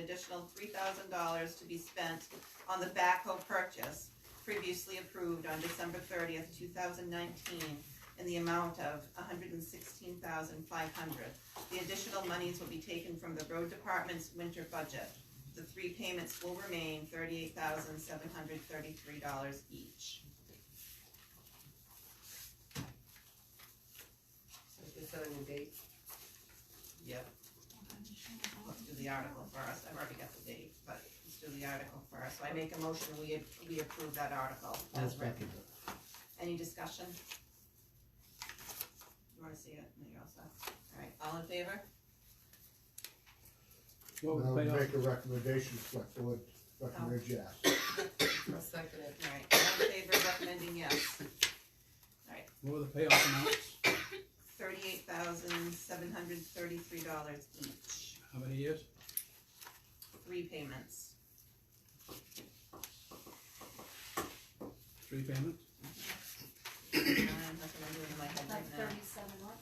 additional three thousand dollars to be spent on the backhoe purchase previously approved on December thirtieth, two thousand nineteen, in the amount of hundred and sixteen thousand five hundred. The additional monies will be taken from the road department's winter budget. The three payments will remain thirty-eight thousand seven hundred thirty-three dollars each. So Is that a new date? Yep. Let's do the article first, I've already got the date, but let's do the article first, so I make a motion, we, we approve that article as written. Any discussion? You wanna see it, no, you're all set, alright, all in favor? Well, Now, they are- make a recommendation, select board, recommend yes. I'll second it. Alright, all in favor, recommending yes, what were the payoff amounts? thirty-eight thousand seven hundred thirty-three dollars each, How many years? three payments. Three payments? Um, that's what I'm doing in my head Like right now, thirty-seven, what?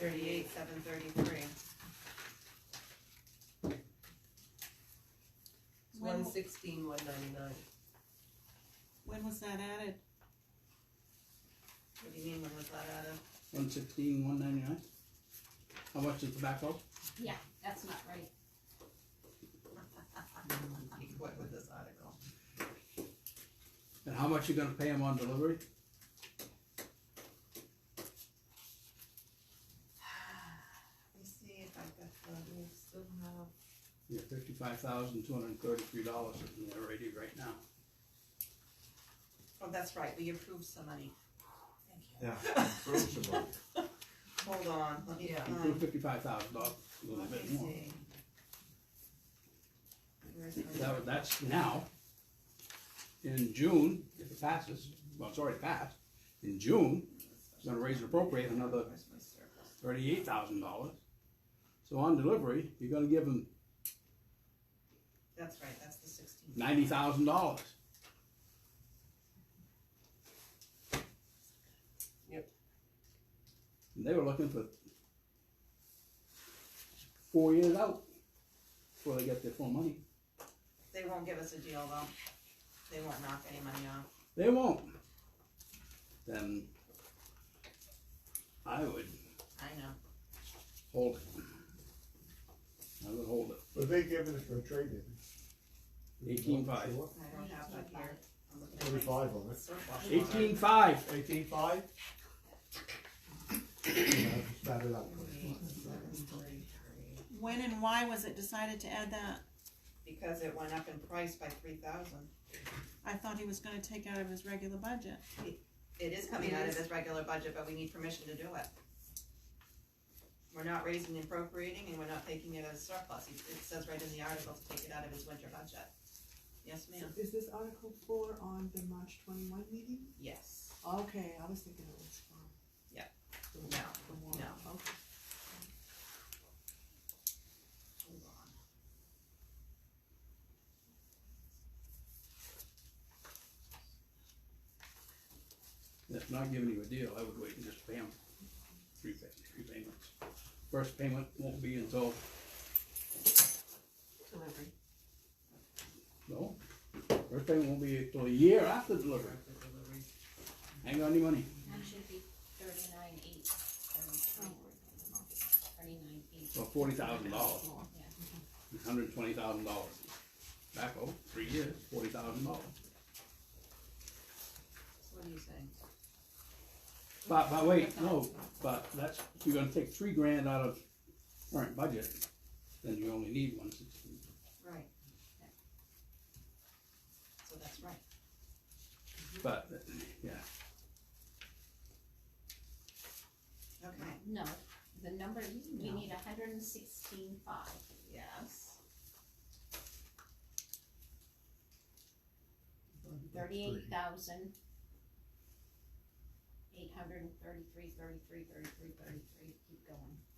thirty-eight seven thirty-three. It's When- one sixteen, one ninety-nine. When was that added? What do you mean, when was that out of? One sixteen, one ninety-nine? How much is the backhoe? Yeah, that's not right. What with this article? And how much you gonna pay him on delivery? Let me see if I've got the, We still have. Yeah, fifty-five thousand, two hundred and thirty-three dollars is in there already right now. oh, that's right, we approved some money. Yeah. Hold on, let me, Yeah. You threw um, fifty-five thousand dollars, a little let me bit more. see. Where's my- That, was- that's now. In June, if it passes, well, it's already passed, in June, it's gonna raise and appropriate another Where's my circle? thirty-eight thousand dollars. So on delivery, you're gonna give him That's right, that's the sixteen. ninety thousand dollars. Yep. And they were looking for four years out before they get their full money. They won't give us a deal though, they won't knock any money off. They won't. Then I would I know, hold it. I would hold it. But they giving us for a trade-in. $18,500. Sure. I don't have that here. I'm looking at my Thirty-five on it. circle. Eighteen five. Eighteen five? Sat it up. When and why was it decided to add that? Because it went up in price by three thousand. I thought he was gonna take out of his regular budget. It is coming out It of is. his regular budget, but we need permission to do it. We're not raising and appropriating, and we're not taking it as surplus, it it says right in the article to take it out of his winter budget. Yes, So ma'am? Is this Article four on the March twenty-one meeting? Yes. Okay, I was thinking it was um, for No, the war. No. Okay. hold on. That's not giving you a deal, I would wait and just pay them three pa- three payments. First payment won't be until, Delivery. no, first payment won't be until a year after delivery, After delivery. hang on to your money. That should be thirty-nine, eight, thirty-three, thirty-nine, eight. So forty thousand dollars, Yeah. hundred and twenty thousand dollars. Back over three years, forty thousand dollars. So what are you saying? But, but wait, no, but that's, if you're gonna take three grand out of current budget, then you only need one sixteen. Right. So that's right. But, yeah, Okay. No, the number, we need a hundred and sixteen five. Yes. Thirty-eight thousand eight hundred and thirty-three, thirty-three, thirty-three, thirty-three. keep going.